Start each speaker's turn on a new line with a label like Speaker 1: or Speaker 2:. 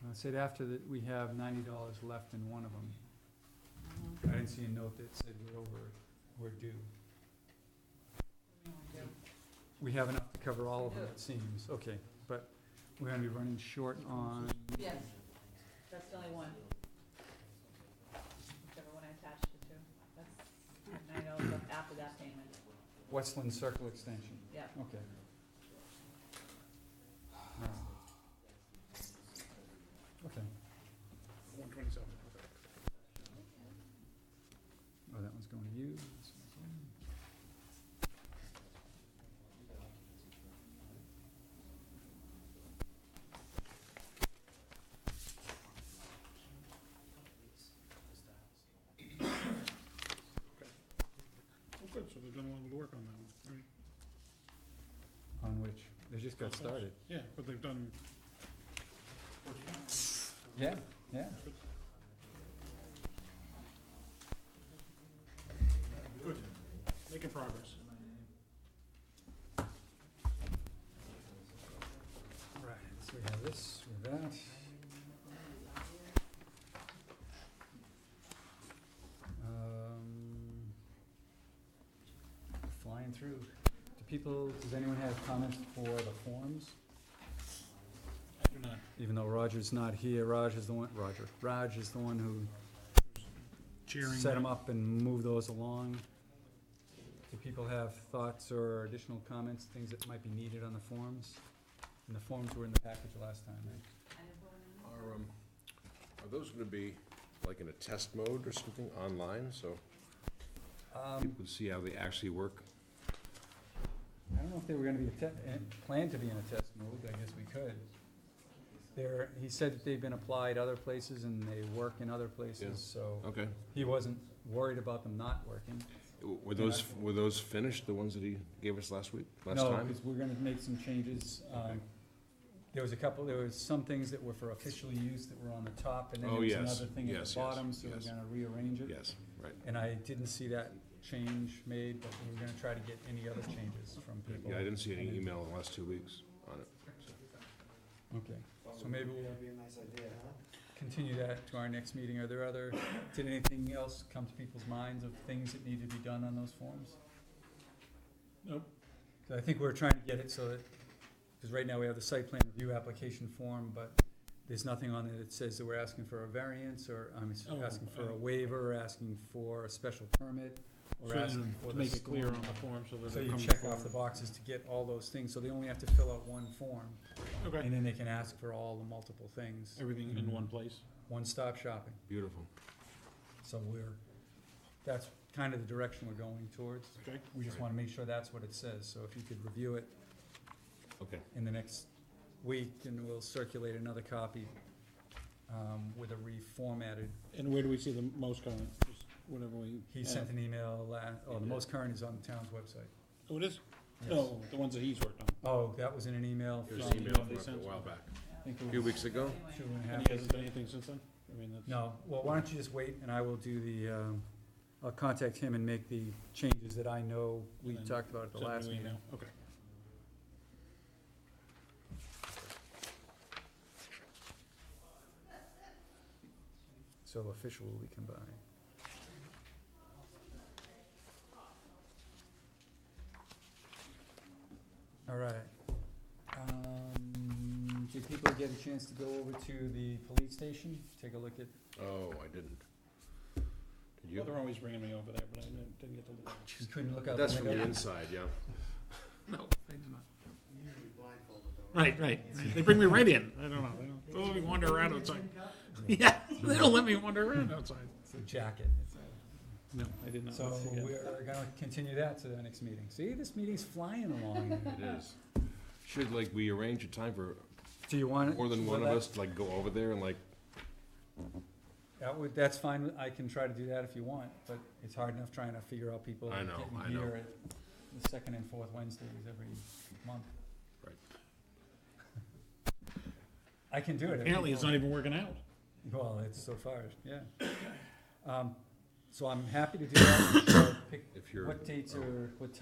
Speaker 1: Oh,
Speaker 2: said after that, we have ninety dollars left in one of them. I didn't see a note that said we're over, we're due. We have enough to cover all of them, it seems, okay, but we're gonna be running short on,
Speaker 3: Yes, that's the only one. Whichever one I attached it to, that's nine dollars left after that payment,
Speaker 2: Westland Circle Extension,
Speaker 3: yeah.
Speaker 2: okay. Alright. Okay,
Speaker 1: One twenty-seven.
Speaker 2: oh, that one's going to you. This one's going to you.
Speaker 1: Well, good, so they've done a lot of work on that one, right?
Speaker 2: On which, they just got started.
Speaker 1: Yeah, but they've done,
Speaker 2: Yeah, yeah.
Speaker 1: good, making progress.
Speaker 2: Right, so we have this, we have that. Um, Flying through. Do people, does anyone have comments for the forms?
Speaker 1: I do not.
Speaker 2: Even though Roger's not here, Raj is the one, Roger, Raj is the one who
Speaker 1: Cheering.
Speaker 2: set them up and moved those along. Do people have thoughts or additional comments, things that might be needed on the forms? And the forms were in the package last time, right?
Speaker 4: Are, um, are those gonna be like in a test mode or something online, so
Speaker 2: Um,
Speaker 4: people can see how they actually work?
Speaker 2: I don't know if they were gonna be a te- eh, planned to be in a test mode, I guess we could. There, he said that they've been applied other places and they work in other
Speaker 4: Yeah.
Speaker 2: places, so
Speaker 4: Okay.
Speaker 2: he wasn't worried about them not working.
Speaker 4: W- Were those, were those finished, the ones that he gave us last week, last
Speaker 2: No,
Speaker 4: time?
Speaker 2: because we're gonna make some changes, um,
Speaker 4: Okay.
Speaker 2: there was a couple, there was some things that were for official use that were on the top, and then
Speaker 4: Oh,
Speaker 2: there was
Speaker 4: yes,
Speaker 2: another thing at
Speaker 4: yes,
Speaker 2: the
Speaker 4: yes,
Speaker 2: bottom, so we're
Speaker 4: yes.
Speaker 2: gonna rearrange it.
Speaker 4: Yes, right.
Speaker 2: And I didn't see that change made, but we were gonna try to get any other changes from people.
Speaker 4: Yeah, I didn't see any
Speaker 2: And then-
Speaker 4: email in the last two weeks on it.
Speaker 2: Okay, so maybe we'll
Speaker 5: That'd be a nice idea, huh?
Speaker 2: continue that to our next meeting. Are there other, did anything else come to people's minds of things that need to be done on those forms?
Speaker 1: Nope.
Speaker 2: 'Cause I think we're trying to get it so that, because right now we have the site plan review application form, but there's nothing on it that says that we're asking for a variance or, I'm s-
Speaker 1: Oh,
Speaker 2: asking for a
Speaker 1: uh,
Speaker 2: waiver, or asking for a special permit, or
Speaker 1: So,
Speaker 2: asking for
Speaker 1: To
Speaker 2: the
Speaker 1: make it clear
Speaker 2: storm.
Speaker 1: on the form so that
Speaker 2: So
Speaker 1: it
Speaker 2: you
Speaker 1: comes
Speaker 2: check off
Speaker 1: forward.
Speaker 2: the boxes to get all those things, so they only have to fill out one form,
Speaker 1: Okay,
Speaker 2: and then they can ask for all the multiple things.
Speaker 1: everything in one place.
Speaker 2: One-stop shopping.
Speaker 4: Beautiful.
Speaker 2: So we're, that's kind of the direction we're going towards.
Speaker 1: Okay.
Speaker 2: We just wanna make sure that's what it says, so if you could review it
Speaker 4: Okay.
Speaker 2: in the next week, and we'll circulate another copy, um, with a reformatted,
Speaker 1: And where do we see the most comment? Just Whatever we.
Speaker 2: he
Speaker 1: have.
Speaker 2: sent an email la, oh, the
Speaker 1: Yeah.
Speaker 2: most current is on the town's website.
Speaker 1: Oh, it is?
Speaker 2: Yes.
Speaker 1: No, the ones that he's worked on.
Speaker 2: Oh, that was in an email
Speaker 4: It
Speaker 2: from,
Speaker 4: was
Speaker 1: Yeah,
Speaker 4: an
Speaker 2: I
Speaker 4: email
Speaker 1: they
Speaker 4: from a
Speaker 1: sent
Speaker 4: while
Speaker 1: something.
Speaker 4: back,
Speaker 2: think
Speaker 4: a
Speaker 2: it
Speaker 4: few
Speaker 2: was
Speaker 4: weeks ago.
Speaker 2: two
Speaker 3: Anyway,
Speaker 2: and a half
Speaker 1: And he
Speaker 2: weeks
Speaker 1: hasn't done anything since then? I mean, that's.
Speaker 2: No, well, why don't you just wait, and I will do the, um, I'll contact him and make the changes that I know we
Speaker 1: And then
Speaker 2: talked about at the
Speaker 1: Send
Speaker 2: last
Speaker 1: new
Speaker 2: meeting.
Speaker 1: email. Okay.
Speaker 2: So official will be combined. All right. Um, did people get a chance to go over to the police station, take a look at,
Speaker 4: Oh, I didn't.
Speaker 1: Well,
Speaker 4: Did you?
Speaker 1: they're always bringing me over there, but I didn't didn't get to look.
Speaker 2: you couldn't look out
Speaker 4: That's
Speaker 2: the
Speaker 4: from the
Speaker 2: window?
Speaker 4: inside, yeah.
Speaker 1: No, I did not.
Speaker 5: Usually blindfolded though, right?
Speaker 1: Right, right. They bring me right in. I don't know. They don't, they let me wander around outside. Yeah, they don't let me wander around outside.
Speaker 2: It's a jacket.
Speaker 1: No, I did not.
Speaker 2: So we're gonna continue that to the next meeting. See, this meeting's flying along.
Speaker 4: It is. Should, like, we arrange a time for
Speaker 2: Do you want?
Speaker 4: more than
Speaker 2: well,
Speaker 4: one of
Speaker 2: that-
Speaker 4: us to, like, go over there and, like,
Speaker 2: That would, that's fine, I can try to do that if you want, but it's hard enough trying to figure out people
Speaker 4: I know, I
Speaker 2: getting
Speaker 4: know.
Speaker 2: here at the second and fourth Wednesdays every month.
Speaker 4: Right.
Speaker 2: I can do it. if
Speaker 1: Apparently, it's
Speaker 2: people-
Speaker 1: not even working out.
Speaker 2: Well, it's so far, yeah. Um, so I'm happy to do that, so pick,
Speaker 4: if you're.
Speaker 2: what dates
Speaker 4: oh.
Speaker 2: are, what